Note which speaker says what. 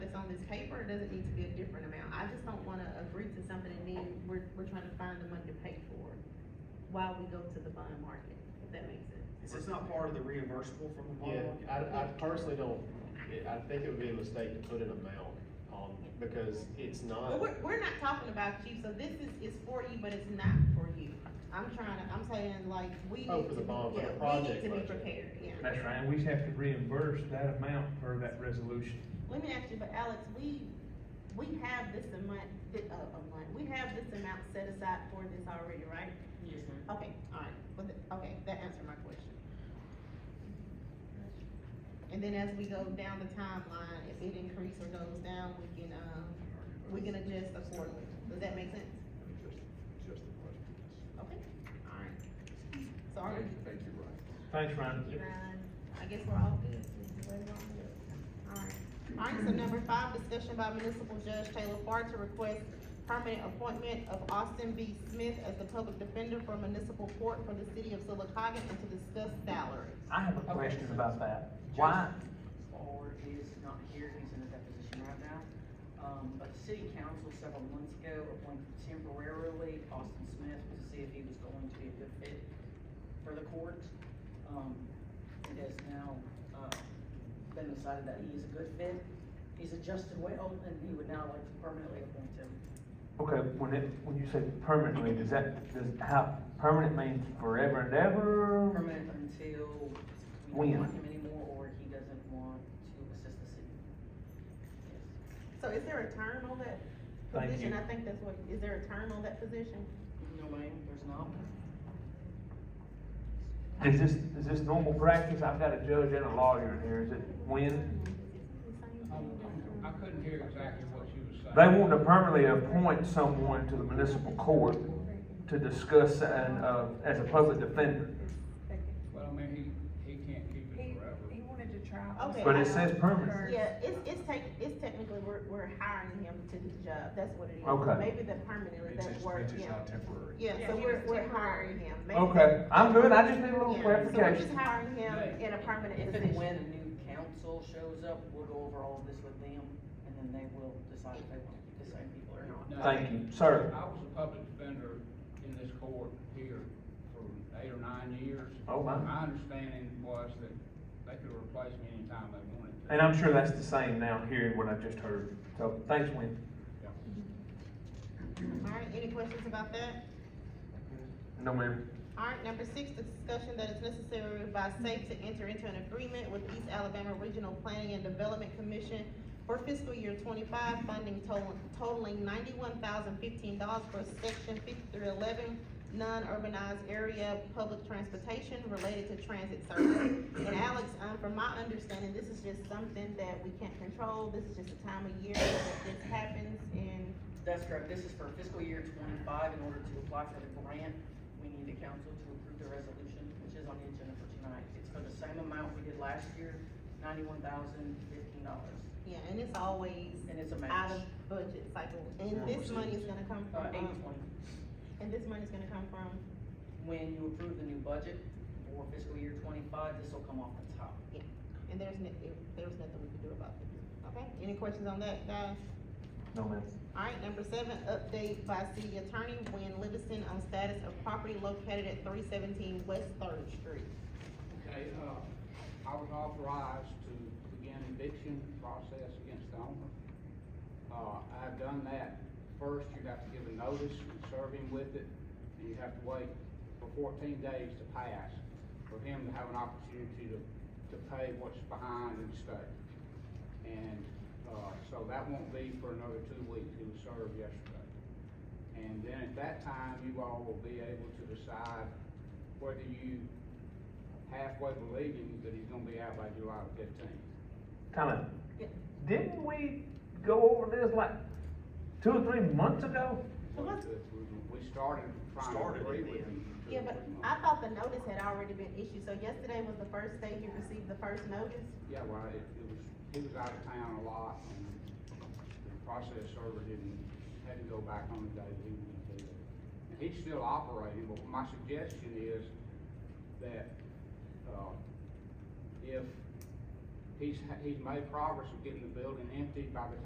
Speaker 1: doesn't need to be a different amount, I just don't wanna agree to something and then we're, we're trying to find the money to pay for it while we go to the bond market, if that makes sense.
Speaker 2: Is this not part of the reimbursable from the bond?
Speaker 3: Yeah,
Speaker 2: market?
Speaker 3: I, I personally don't, I think it would be a mistake to put an amount on, because it's
Speaker 1: Well,
Speaker 3: not,
Speaker 1: we're, we're not talking about you, so this is, is for you, but it's not for you. I'm trying to, I'm saying like, we need to.
Speaker 3: Oh, for the bond, for the
Speaker 1: yeah, we need
Speaker 3: project
Speaker 1: to be
Speaker 3: budget.
Speaker 1: prepared, yeah.
Speaker 4: That's right, and we have to reimburse that amount for that resolution.
Speaker 1: Let me ask you, but Alex, we, we have this amount, thi- uh, a month, we have this amount set aside for this already, right?
Speaker 5: Yes, ma'am.
Speaker 1: Okay, all right, but, the- okay, that answered my question. And then as we go down the timeline, if it increases or goes down, we can, um, we can adjust accordingly. Does that make sense?
Speaker 6: Just the question, yes.
Speaker 1: Okay, all right. So are we,
Speaker 6: Thank you, Ryan.
Speaker 4: Thanks, Ryan.
Speaker 1: I guess we're all good. Alright, alright, so number five, discussion by municipal judge Taylor Farr to request permanent appointment of Austin B. Smith as the public defender for municipal court for the city of Silicotta and to discuss salary.
Speaker 7: I have a
Speaker 5: Okay.
Speaker 7: question about that. Why,
Speaker 5: Or is not here, he's in a deposition right now. Um, but the city council several months ago appointed temporarily Austin Smith to see if he was going to be a good fit for the court. Um, it has now, uh, been decided that he is a good fit. He's adjusted well, and he would now like to permanently appoint him.
Speaker 4: Okay, when it, when you say permanently, does that, does, how, permanent means forever and ever?
Speaker 5: Permanent until we
Speaker 4: When?
Speaker 5: don't want him anymore, or he doesn't want to assist the city. Yes.
Speaker 1: So is there a term on that
Speaker 4: Thank
Speaker 1: position?
Speaker 4: you.
Speaker 1: I think that's what, is there a term on that position?
Speaker 5: No, ma'am, there's not.
Speaker 4: Is this, is this normal practice? I've got a judge and a lawyer in here, is it when?
Speaker 8: I couldn't hear exactly what you were saying.
Speaker 4: They want to permanently appoint someone to the municipal court to discuss and, uh, as a public defender.
Speaker 8: Well, I mean, he, he can't keep it forever.
Speaker 9: wanted to try.
Speaker 1: Okay.
Speaker 4: But it says permanent.
Speaker 1: Yeah, it's, it's tech, it's technically, we're, we're hiring him to do the job, that's what it is.
Speaker 4: Okay.
Speaker 1: Maybe the permanent,
Speaker 6: It's
Speaker 1: that
Speaker 6: just,
Speaker 1: word,
Speaker 6: it's just
Speaker 1: yeah.
Speaker 6: not temporary.
Speaker 1: Yeah,
Speaker 9: Yeah,
Speaker 1: so
Speaker 9: he
Speaker 1: we're,
Speaker 9: was
Speaker 1: we're
Speaker 9: temporary.
Speaker 1: hiring him. Maybe
Speaker 4: Okay, I'm good, I just need a
Speaker 1: Yeah,
Speaker 4: little
Speaker 1: So we're just
Speaker 4: clarification.
Speaker 1: hiring him in a permanent
Speaker 5: If and when
Speaker 1: position.
Speaker 5: a new council shows up, we'll go over all of this with them, and then they will decide if they want to keep the same people or not.
Speaker 8: No.
Speaker 4: Thank you, sir.
Speaker 8: I was a public defender in this court here for eight or nine years.
Speaker 4: Oh, my.
Speaker 8: My understanding was that they could replace me anytime they wanted to.
Speaker 4: And I'm sure that's the same now, hearing what I've just heard. So, thanks, Wendy.
Speaker 1: Alright, any questions about that?
Speaker 4: No, ma'am.
Speaker 1: Alright, number six, discussion that is necessary by SAFE to enter into an agreement with East Alabama Regional Planning and Development Commission for fiscal year twenty-five, funding totaling, totaling ninety-one thousand fifteen dollars for section fifty-three eleven, non-urbanized area, public transportation related to transit service. And Alex, um, from my understanding, this is just something that we can't control, this is just a time of year that this happens and
Speaker 5: That's correct, this is for fiscal year twenty-five, in order to apply for the grant, we need the council to approve the resolution, which is on the agenda for tonight. It's for the same amount we did last year, ninety-one thousand fifteen dollars,
Speaker 1: Yeah, and it's always
Speaker 5: and it's a
Speaker 1: out
Speaker 5: match.
Speaker 1: of budget cycle, and this money is gonna come
Speaker 5: Uh,
Speaker 1: from,
Speaker 5: eight
Speaker 1: um,
Speaker 5: twenty,
Speaker 1: and this money's gonna come from,
Speaker 5: when you approve the new budget for fiscal year twenty-five, this will come off the top.
Speaker 1: and there's no, there's nothing we can do about it. Okay, any questions on that, guys?
Speaker 4: No, ma'am.
Speaker 1: Alright, number seven, update by city attorney Wayne Livingston on status of property located at three seventeen West Third Street.
Speaker 8: Okay, uh, I was authorized to begin eviction process against the owner. Uh, I've done that. First, you have to give a notice and serve him with it, and you have to wait for fourteen days to pass for him to have an opportunity to, to pay what's behind and stay. And, uh, so that won't be for another two weeks. He was served yesterday. And then at that time, you all will be able to decide whether you halfway believing that he's gonna be out by July fifteenth.
Speaker 4: Comment.
Speaker 1: Yeah.
Speaker 4: Didn't we go over this like two or three months ago?
Speaker 1: Well, let's-
Speaker 8: We started trying to
Speaker 2: Started
Speaker 8: agree
Speaker 2: it
Speaker 8: with
Speaker 2: then.
Speaker 8: him. two or
Speaker 1: Yeah, but
Speaker 8: three months.
Speaker 1: I thought the notice had already been issued, so yesterday was the first day he received the first notice?
Speaker 8: Yeah, well, it, it was, he was out of town a lot, and the process server didn't, had to go back on the day that he was gonna do it. And he's still operating, but my suggestion is that, uh, if he's, he's made progress of getting the building emptied by the